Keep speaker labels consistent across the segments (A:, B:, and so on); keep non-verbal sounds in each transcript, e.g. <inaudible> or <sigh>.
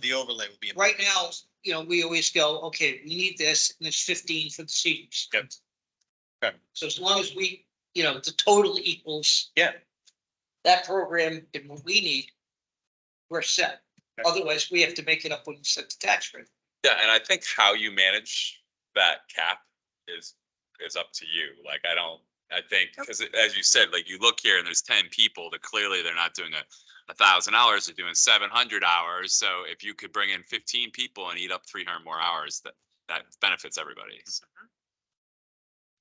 A: the overlay would be.
B: right now, you know, we always go, okay, we need this, and there's fifteen for the seniors.
A: Yep. Okay.
B: So as long as we, you know, the total equals.
A: Yeah.
B: That program and what we need, we're set.
A: Okay.
B: Otherwise, we have to make it up when we set the tax rate.
C: Yeah, and I think how you manage that cap is, is up to you. Like, I don't, I think, because as you said, like, you look here and there's ten people that clearly they're not doing a, a thousand hours, they're doing seven hundred hours. So if you could bring in fifteen people and eat up three hundred more hours, that, that benefits everybody. So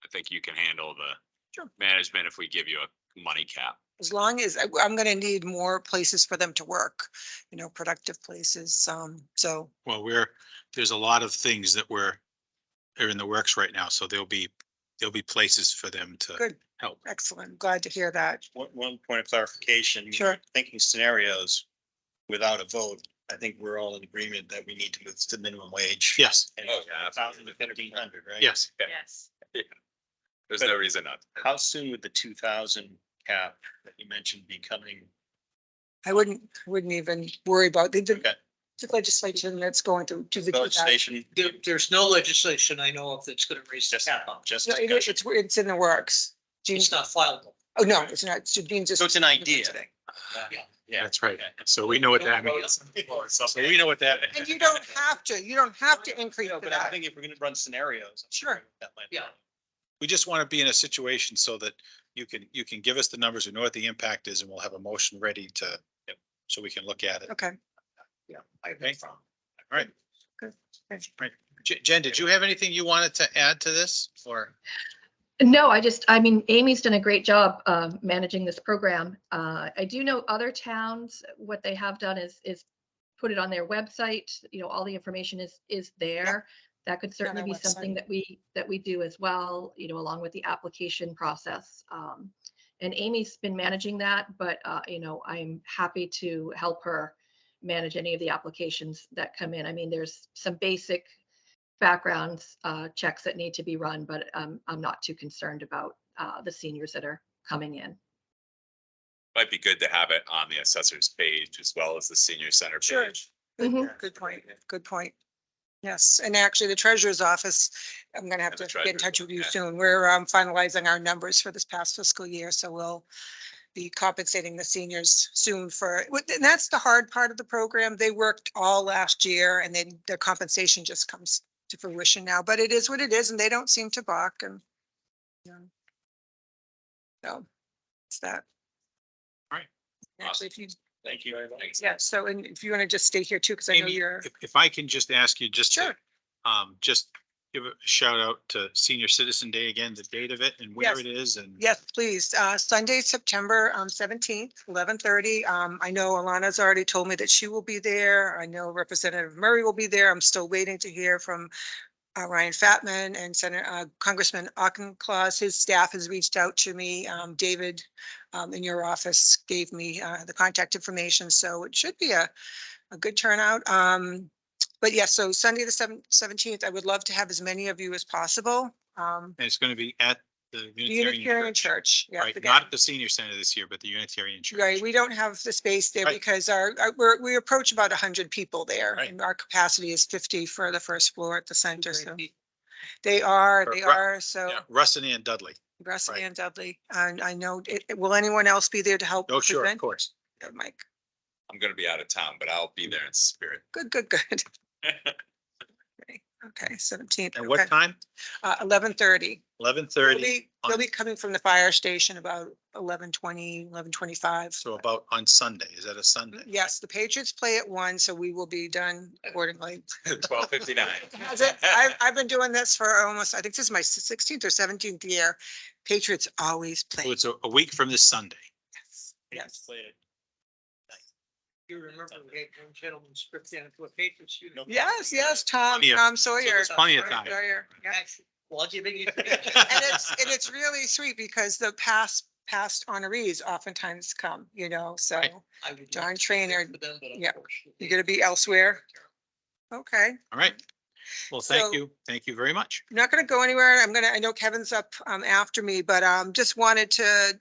C: I think you can handle the
D: Sure.
C: management if we give you a money cap.
D: As long as, I- I'm gonna need more places for them to work, you know, productive places, um, so,
E: Well, we're, there's a lot of things that we're, are in the works right now, so there'll be, there'll be places for them to
D: good,
E: help.
D: excellent, glad to hear that,
A: One, one point of clarification.
D: Sure.
A: Thinking scenarios without a vote, I think we're all in agreement that we need to move to minimum wage.
E: Yes,
A: And
C: Oh, yeah,
A: Thousand to fifteen hundred, right?
E: yes.
F: Yes.
C: There's no reason not. to.
A: How soon would the two thousand cap that you mentioned be coming?
D: I wouldn't, wouldn't even worry about the, the
A: Okay.
D: legislation that's going to, to the.
A: Legislation,
B: There, there's no legislation I know of that's gonna raise the
A: just,
B: cap on.
A: just
D: No, it-
A: discussion.
D: It's, it's in the works,
B: It's
D: Jean's,
B: not fileable.
D: oh, no, it's not, so Jean just.
A: So it's an idea.
D: today.
A: Yeah.
E: That's right. So we know what that means. So we know what that,
D: And you don't have to, you don't have to increase
A: No,
D: to
A: But I
D: that,
A: think if we're gonna run scenarios.
D: Sure.
A: That might.
B: Yeah.
E: we just want to be in a situation so that you can, you can give us the numbers, we know what the impact is, and we'll have a motion ready to, so we can look at it.
D: okay.
B: I
E: Okay.
B: from.
E: All right.
D: Good. Thanks.
E: Right. Je- Jen, did you have anything you wanted to add to this or?
F: No, I just, I mean, Amy's done a great job uh, managing this program. Uh, I do know other towns, what they have done is, is put it on their website. You know, all the information is, is there. That could
D: on
F: certainly
D: our
F: be
D: website.
F: something that we, that we do as well, you know, along with the application process. Um, And Amy's been managing that, but, uh, you know, I'm happy to help her manage any of the applications that come in. I mean, there's some basic backgrounds, uh, checks that need to be run, but um, I'm not too concerned about uh, the seniors that are coming in.
C: Might be good to have it on the assessor's page as well as the senior center
D: Sure.
C: page.
F: Mhm.
D: Good point, good point. Yes, and actually the treasurer's office, I'm gonna have
C: And the
D: to get in
C: treasurer's
D: touch with you
C: office,
D: soon. We're um, finalizing our numbers for this past fiscal year, so we'll be compensating the seniors soon for, and that's the hard part of the program. They worked all last year and then their compensation just comes to fruition now, but it is what it is and they don't seem to balk and. you know. So, it's that.
E: Right.
D: Actually, if you,
A: Thank you very much.
D: yeah, so and if you want to just stay here too, because I know
E: Amy,
D: you're.
E: If, if I can just ask you just to,
D: Sure.
E: um, just give a shout out to Senior Citizen Day again, the date of it and where
D: Yes.
E: it is and.
D: Yes, please. Uh, Sunday, September um, seventeenth, eleven thirty. Um, I know Alana's already told me that she will be there. I know Representative Murray will be there. I'm still waiting to hear from uh, Ryan Fatman and Senator uh, Congressman Auchincloss. His staff has reached out to me. Um, David um, in your office gave me uh, the contact information, so it should be a, a good turnout. Um, but yes, so Sunday, the seventeenth, I would love to have as many of you as possible. Um,
E: And it's going to be at the
D: Unitarian
E: Unitarian Church.
D: Church. yeah,
E: Right,
D: the
E: not
D: guy-
E: at the senior center this year, but the Unitarian Church.
D: Right, we don't have the space there
E: Right.
D: because our, our- we're, we approach about hundred people there.
E: Right.
D: And our capacity is fifty for the first floor at the center, so
B: Great.
D: they are,
E: Or
D: they
E: Ru-
D: are, so
E: Yeah, Russ and Ann Dudley.
D: Russ
E: right.
D: and Dudley, and I know, it- it- will anyone else be there to help?
E: Oh, sure, of
D: present?
E: course.
D: Yeah, Mike,
C: I'm gonna be out of town, but I'll
D: Mm.
C: be there in spirit. <laughs>
D: good, good,
E: <laughs>
D: good. Okay, seventeenth,
E: And what
D: okay,
E: time?
D: uh, eleven thirty.
E: Eleven
D: They'll
E: thirty,
D: be, they'll be coming from the fire station about eleven twenty, eleven twenty-five.
E: so about on Sunday. Is that a Sunday?
D: Yes, the Patriots play at one, so we will be done accordingly.
C: Twelve fifty-nine.
D: That's it. I've, I've been doing this for almost, I think this is my sixteenth or seventeenth year. Patriots always
E: So
D: play.
E: Oh, it's a, a week from this Sunday.
D: Yes.
B: You remember we had one gentleman script down to a Patriots
A: No.
B: uniform.
D: Yes, yes, Tom,
E: Plenty of-
D: Tom
E: So
D: Sawyer.
E: there's plenty of
D: Tom
E: time.
D: Sawyer, yeah.
B: Actually, Well, do you think
A: <laughs>
B: you?
D: And it's, and it's really sweet because the past, past honorees oftentimes come, you know, so
E: Right.
B: I would
D: John
B: love to
D: Trainor,
B: work with them, but
D: yeah.
B: unfortunately-
D: you're gonna be elsewhere. Okay.
E: All right. Well, thank
D: So-
E: you. Thank you very much.
D: I'm not gonna go anywhere. I'm gonna, I know Kevin's up um after me, but um just wanted to,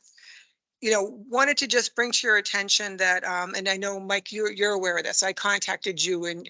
D: you know, wanted to just bring to your attention that um, and I know, Mike, you're you're aware of this. I contacted you and